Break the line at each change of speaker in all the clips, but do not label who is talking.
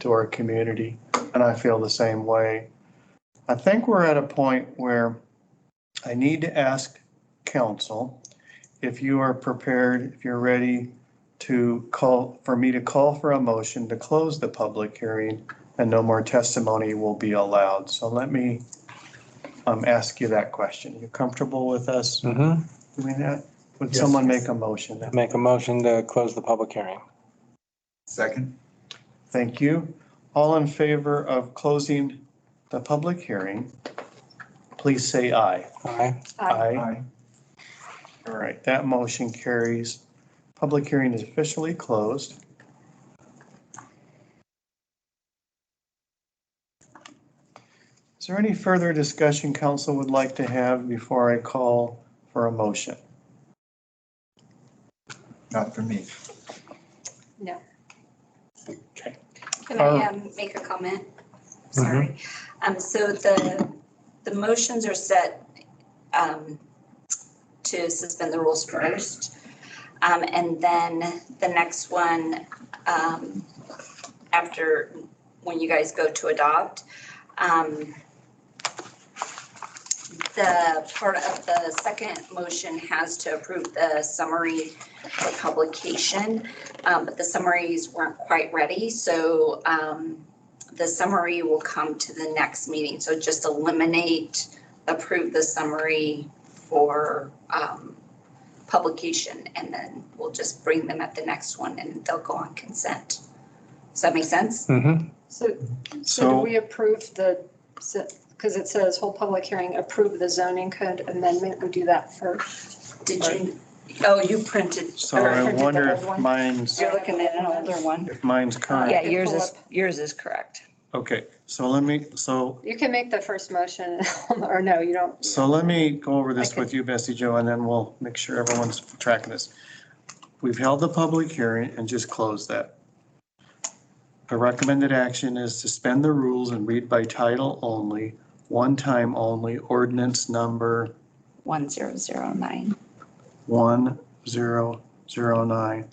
to our community, and I feel the same way. I think we're at a point where I need to ask council if you are prepared, if you're ready to call, for me to call for a motion to close the public hearing and no more testimony will be allowed. So let me um, ask you that question. You comfortable with us
Mm-hmm.
doing that? Would
Yes.
someone make a motion?
Make a motion to close the public hearing.
Second?
Thank you. All in favor of closing the public hearing, please say aye.
Aye.
All right, that motion carries. Public hearing is officially closed. Is there any further discussion council would like to have before I call for a motion?
Not for me.
No.
Okay.
Can I
Uh,
um, make a comment? Sorry. Um, So the, the motions are set um, to suspend the rules first. Um, And then the next one, um, after, when you guys go to adopt, um, the part of the second motion has to approve the summary for publication. Um, but the summaries weren't quite ready, so, um, the summary will come to the next meeting, so just eliminate, approve the summary for, um, publication, and then we'll just bring them at the next one, and they'll go on consent. Does that make sense?
Mm-hmm.
So, so do
So
we approve the, because it says whole public hearing, approve the zoning code amendment, we do that first?
Did you, oh, you printed,
so I
Or-
wonder if mine's,
you're looking at another one?
if mine's current.
Yeah, yours is, yours is correct.
Okay, so let me, so
You can make the first motion, or no, you don't.
So let me go over this
Okay.
with you, Bessie Joe, and then we'll make sure everyone's tracking this. We've held the public hearing and just closed that. The recommended action is suspend the rules and read by title only, one time only, ordinance number
1009.
1009.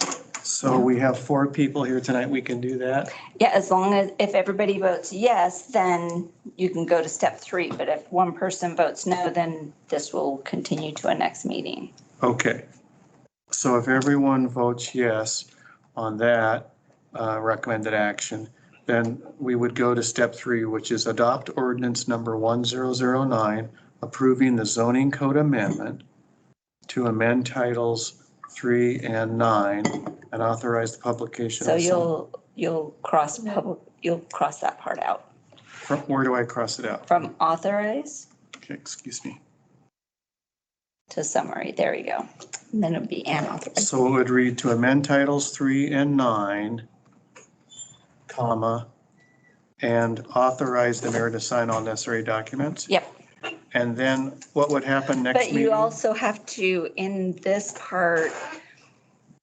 So we have four people here tonight. We can do that.
Yeah, as long as, if everybody votes yes, then you can go to step three. But if one person votes no, then this will continue to a next meeting.
Okay. So if everyone votes yes on that uh, recommended action, then we would go to step three, which is adopt ordinance number 1009, approving the zoning code amendment to amend titles three and nine and authorize the publication.
So
of some-
you'll, you'll cross public, you'll cross that part out.
From- Where do I cross it out?
From authorize
Okay, Excuse me.
to summary, there you go. And then it'll be unauthorized.
So it would read to amend titles three and nine, comma, and authorize the mayor to sign all necessary documents.
Yep.
And then what would happen next
But
meeting?
you also have to, in this part,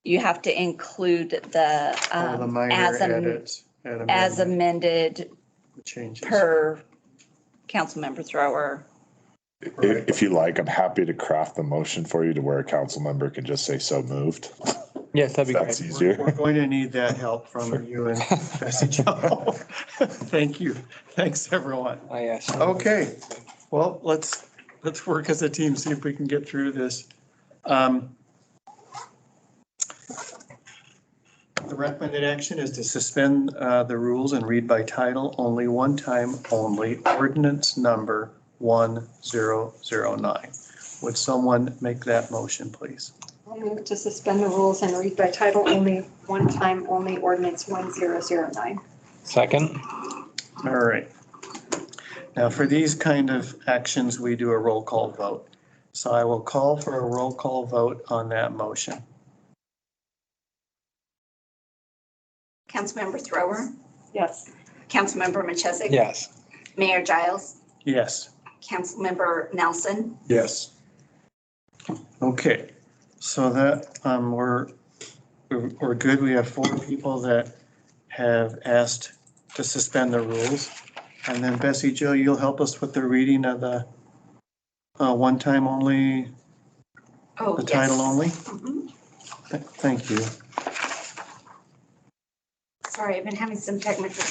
you have to include the,
All the
um,
minor
as am-
edits and
as
amendment
amended
Changes.
per Councilmember Thrower.
If, if you like, I'm happy to craft the motion for you to where a council member can just say so moved.
Yes, that'd be
That's
great.
We're we're
easier.
going to need that help from you and Bessie Jo. Thank you. Thanks, everyone.
Oh, yes.
Okay, well, let's, let's work as a team, see if we can get through this. Um, The recommended action is to suspend uh, the rules and read by title only, one time only, ordinance number 1009. Would someone make that motion, please?
I'll move to suspend the rules and read by title only, one time only ordinance 1009.
Second?
All right. Now, for these kind of actions, we do a roll call vote. So I will call for a roll call vote on that motion.
Councilmember Thrower,
Yes.
Councilmember Machesik.
Yes.
Mayor Giles,
Yes.
Councilmember Nelson,
Yes.
Okay, so that, um, we're, we're we're good. We have four people that have asked to suspend the rules. And then Bessie Joe, you'll help us with the reading of the, uh, one time only,
oh,
the
yes.
title only?
Mhm.
Th- Thank you.
Sorry, I've been having some technical